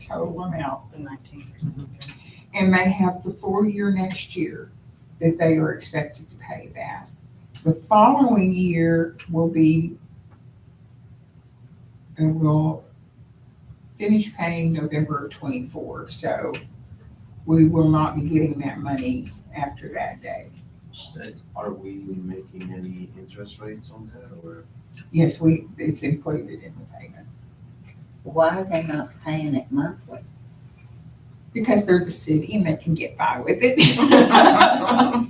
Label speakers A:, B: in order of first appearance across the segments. A: total amount, the nineteen three. And they have the full year next year that they are expected to pay that. The following year will be, and will finish paying November twenty-four, so we will not be getting that money after that day.
B: Are we making any interest rates on that or?
A: Yes, we, it's included in the payment,
C: Why are they not paying it monthly?
A: because they're the city and they can get by with it.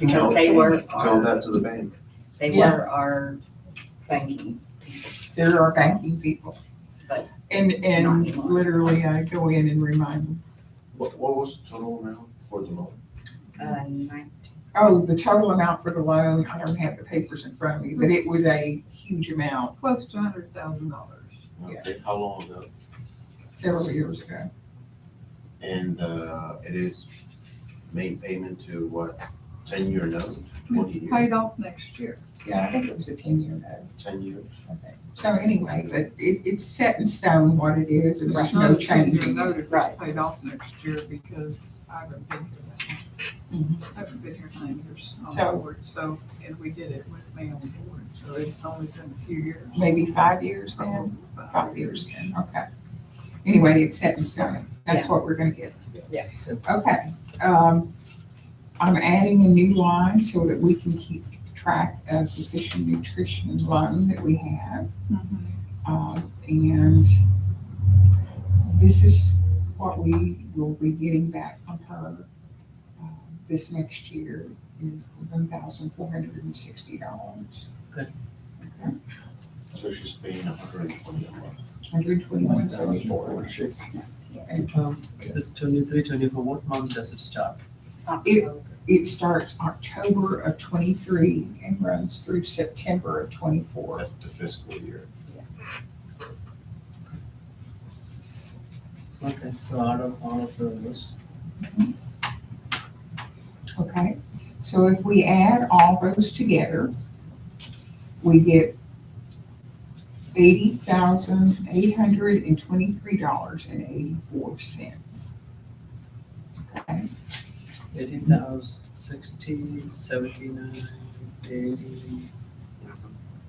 C: Because they were
B: Tell
C: our,
B: that to the bank.
C: they
A: Yeah.
C: were our banking.
A: There are banking people.
C: But-
A: And,
C: Not
A: and
C: anymore.
A: literally I go in and remind them,
B: What, what was the total amount for the loan?
C: Uh, nine-
A: oh, the total amount for the loan, I don't have the papers in front of me, but it was a huge amount
D: close to a hundred thousand dollars.
A: Yeah.
B: Okay, How long ago?
A: several years ago.
B: And, uh, it is made payment to what, ten year note, twenty
D: It's
B: year,
D: paid off next year.
A: Yeah, I think it was a ten-year note.
B: ten years?
A: So anyway, but it, it's set in stone what it is and
D: It's
A: there's
D: not
A: no
D: a ten-year
A: change.
D: note, It's
C: Right.
D: paid off next year because I haven't been here that long. I haven't been here nine years
A: So-
D: on board, so, and we did it with me on board, so it's only been a few years.
A: Maybe five years then?
D: Probably about
A: Five years then, okay. Anyway, it's set in stone. That's what we're gonna get.
C: Yeah.
A: Okay, um, I'm adding a new line so that we can keep track of the fish and nutrition loan that we have.
D: Mhm.
A: Um, and this is what we will be getting back from her, um, this next year is one thousand four hundred and sixty dollars.
E: Good.
A: Okay,
B: So she's paying a hundred and twenty a month.
A: hundred twenty-one seventy-four.
E: So, um, This twenty-three, twenty-four, what month does it start?
C: October.
A: It starts October of twenty-three and runs through September of twenty-four.
B: That's the fiscal year.
E: Okay, so out of all of those,
A: Okay, so if we add all those together, we get eighty thousand eight hundred and twenty-three dollars and eighty-four cents. Okay,
E: eighty thousand, sixty, seventy-nine, eighty,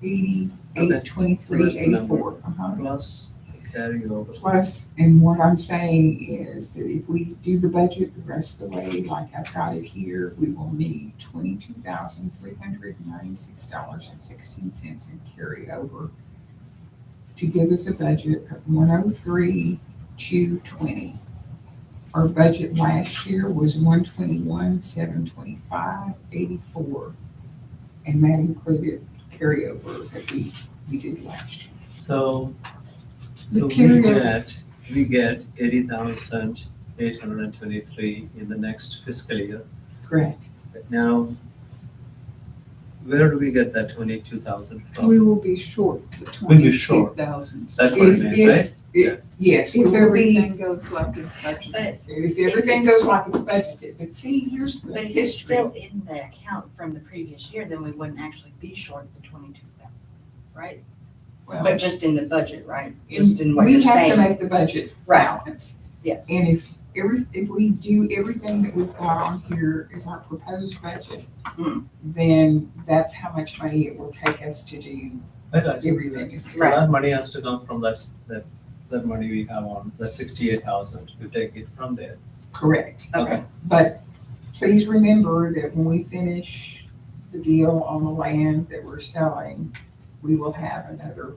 A: eighty,
E: Okay.
A: eight twenty-three,
E: So that's the number.
A: eighty-four. Uh-huh.
E: plus carryover.
A: Plus, and what I'm saying is that if we do the budget the rest of the way, like I've got it here, we will need twenty-two thousand three hundred and ninety-six dollars and sixteen cents in carryover to give us a budget of one oh three, two twenty. Our budget last year was one twenty-one, seven twenty-five, eighty-four. And that included carryover that we, we did last year.
E: So, so we
A: carryover.
E: get, we get eighty thousand, eight hundred and twenty-three in the next fiscal year.
A: Correct.
E: But Now, where do we get that twenty-two thousand from?
D: We will be short the
E: We'll be short.
D: twenty-two thousand.
E: That's what it
A: If-
E: means,
A: if-
E: right?
A: if- Yes, we
D: If
A: will be,
D: everything goes like it's budgeted.
C: But-
A: if everything goes like it's budgeted, but see, here's the
C: But if it's
A: history.
C: still in the account from the previous year, then we wouldn't actually be short the twenty-two thousand, right?
A: Well,
C: But just in the budget, right? Just in what
A: We
C: you're
A: have to
C: saying,
A: make the budget
C: Right.
A: balance,
C: yes.
A: and if every, if we do everything that we've got on here is our proposed budget,
C: Hmm.
A: then that's how much money it will take us to do
E: I got you.
A: everything.
E: So that money has to come from that, s- that, that money we have on, that sixty-eight thousand, you take it from there.
A: Correct.
C: Okay.
A: But please remember that when we finish the deal on the land that we're selling, we will have another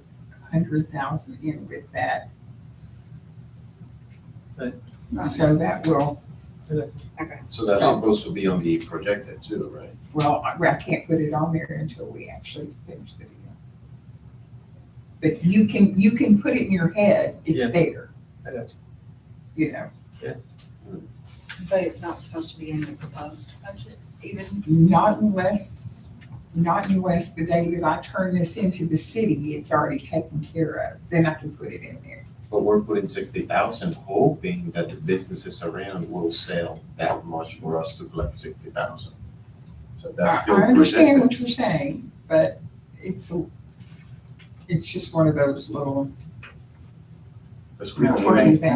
A: hundred thousand in with that.
E: Right.
A: So that will,
B: So that's supposed to be on the projected too, right?
A: well, I I can't put it on there until we actually finish the deal. But you can, you can put it in your head,
E: Yeah.
A: it's there,
E: I got you.
A: you know,
C: But it's not supposed to be in the proposed budget even?
A: not unless, not unless the day that I turn this into the city, it's already taken care of, then I can put it in there.
B: But we're putting sixty thousand, hoping that the businesses around will sell that much for us to collect sixty thousand. So that's
A: I
B: still
A: I understand
B: projected.
A: what you're saying, but it's, a- it's just one of those little
B: Because we
A: No,
B: already-
A: or anything.